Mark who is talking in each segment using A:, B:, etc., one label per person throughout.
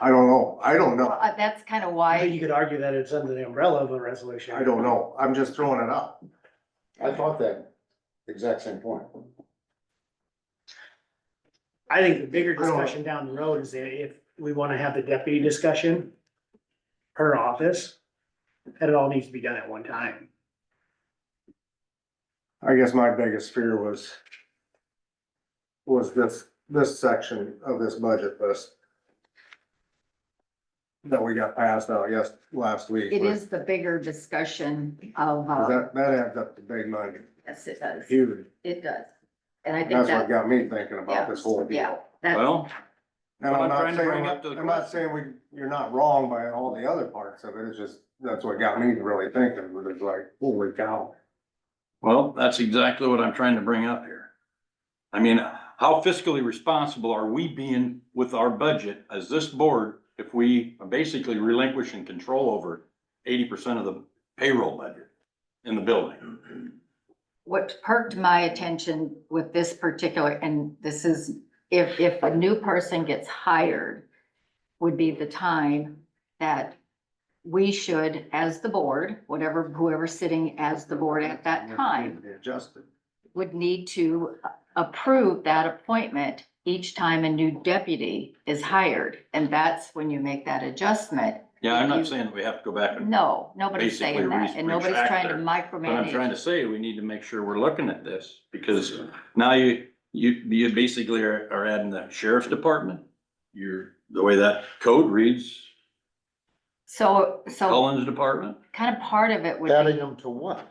A: I don't know, I don't know,
B: Uh, That's kind of
C: I think you
B: why,
C: could argue that it's under the umbrella of a resolution.
A: I don't know, I'm just throwing it out.
D: I thought that exact same point.
C: I think the bigger
A: I don't know.
C: discussion down the road is that if we wanna have the deputy discussion per office, that it all needs to be done at one time.
A: I guess my biggest fear was was this, this section of this budget list that we got passed out, yes, last week.
B: it
A: but-
B: is the bigger discussion of,
A: 'cause
B: uh,
A: That, that adds up to big money,
B: yes, it does,
A: huge.
B: it does. And I think
A: That's what
B: that,
A: got me thinking about this whole
B: yeah,
A: deal.
B: that,
E: Well,
A: And I'm
E: But I'm
A: not
E: trying to
A: saying,
E: bring up to
A: what-
E: the
A: I'm not
E: question.
A: saying we, you're not wrong by all the other parts of it, it's just, that's what got me really thinking, was it's like, holy cow.
E: well, that's exactly what I'm trying to bring up here. I mean, how fiscally responsible are we being with our budget as this board if we are basically relinquishing control over eighty percent of the payroll budget in the building?
B: what perked my attention with this particular, and this is, if, if a new person gets hired, would be the time that we should, as the board, whatever, whoever's sitting as the board at that time,
A: Adjusted.
B: would need to approve that appointment each time a new deputy is hired. And that's when you make that adjustment.
E: Yeah, I'm not saying that we have to go back and,
B: No, nobody's saying
E: Basically,
B: that,
E: re-
B: and nobody's
E: retract
B: trying to
E: their- but I'm trying to
B: micromanage.
E: say, we need to make sure we're looking at this because now you, you, you basically are, are adding the sheriff's department. You're, the way that code reads,
B: So, so
E: Cullen's department.
B: kind of part of it would
D: Adding
B: be
D: them to what?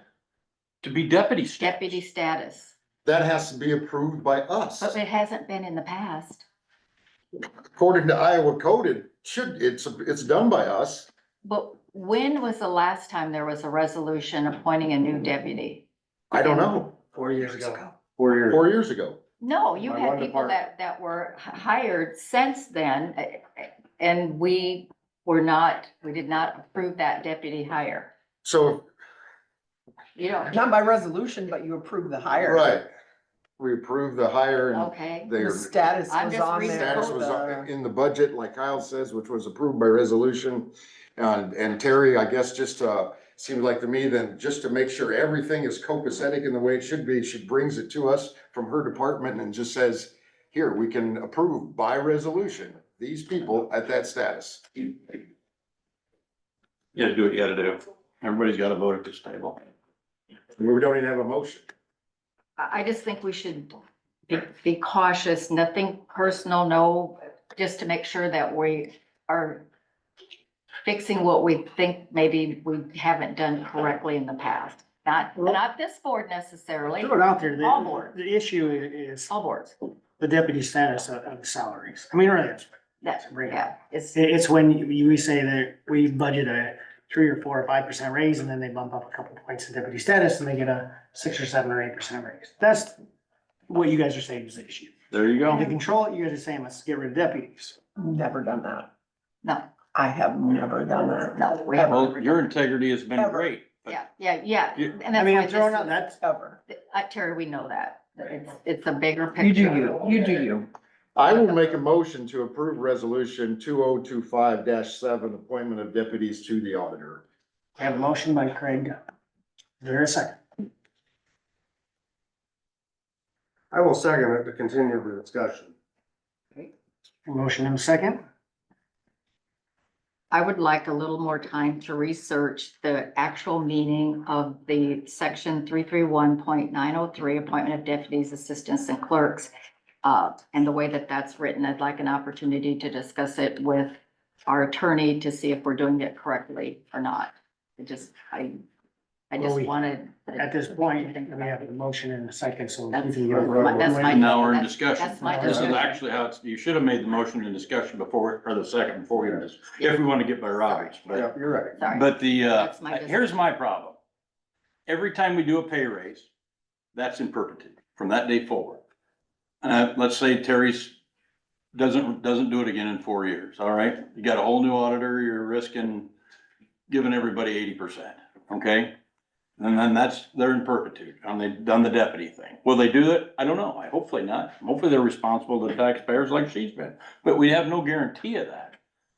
E: To be deputy staff.
B: deputy status,
D: That has to be approved by us.
B: but it hasn't been in the past.
D: According to Iowa code, it should, it's, it's done by us.
B: But when was the last time there was a resolution appointing a new deputy?
D: I don't know,
C: Four years ago.
A: Four years.
D: four years ago.
B: No, you
A: My
B: had
A: one
B: people
A: department.
B: that, that were h- hired since then, eh, eh, and we were not, we did not approve that deputy hire.
D: So,
B: You don't,
F: Not by resolution, but you approve the hire.
D: right. We approved the hire and
B: okay,
D: they.
F: The status
B: I'm
F: was
B: just
F: on
B: reading
F: there.
D: Status
B: code,
D: was
F: The-
D: on- in the budget, like Kyle says, which was approved by resolution. And, and Terry, I guess, just, uh, seemed like to me then, just to make sure everything is copacetic in the way it should be, she brings it to us from her department and just says, here, we can approve by resolution, these people at that status.
E: You gotta do what you gotta do. Everybody's gotta vote at this table.
D: We don't even have a motion.
B: I, I just think we should be, be cautious, nothing personal, no, just to make sure that we are fixing what we think maybe we haven't done correctly in the past, not, not this board necessarily,
C: Throw it out there.
B: All board.
C: The, the issue i- is
B: all boards,
C: the deputy status of, of salaries. I mean, really, it's,
B: that, yeah, it's,
C: it- it's when you, we say that we budget a three or four or five percent raise and then they bump up a couple points in deputy status and they get a six or seven or eight percent raise. That's what you guys are saying is the issue.
E: There you
C: And to
B: Mm-hmm.
E: go.
C: control it, you guys are saying, let's get rid of deputies.
F: Never done that.
B: no,
F: I have never done that,
B: no, we haven't.
E: Well, your integrity has been
F: Ever.
E: great. but
B: Yeah, yeah, yeah.
E: You-
B: And
C: I
B: that's
C: mean,
B: why
C: I'm throwing
B: this
C: out
B: is-
C: that,
F: ever.
B: Uh, Terry, we know that. It's, it's a bigger picture.
F: You do you, you do you.
D: I will make a motion to approve resolution two oh two five seven, appointment of deputies to the auditor.
C: I have a motion by Craig. Is there a second?
A: I will second it to continue the discussion.
C: Motion and a second.
B: I would like a little more time to research the actual meaning of the section three three one point nine oh three, appointment of deputies, assistants and clerks. Uh, and the way that that's written, I'd like an opportunity to discuss it with our attorney to see if we're doing it correctly or not. It just, I, I
C: Well,
B: just
C: we-
B: wanted.
C: At this point, we have a motion and a second, so. we can go.
B: That's- that's my-
E: And now we're in
B: That's-
E: discussion.
B: that's my
E: This is
C: discussion.
E: actually how it's, you should have made the motion in discussion before, or the second before we, just- if we want to get by Roberts, but,
A: Yeah, you're right.
B: Sorry.
E: but the, uh,
B: That's my
E: here's my problem. Every time we do a pay raise, that's in perpetuity from that day forward. Uh, let's say Terry's doesn't, doesn't do it again in four years, all right? You got a whole new auditor, you're risking giving everybody eighty percent, okay? And then that's, they're in perpetuity, and they've done the deputy thing. Will they do it? I don't know. I, hopefully not. Hopefully they're responsible to taxpayers like she's been, but we have no guarantee of that.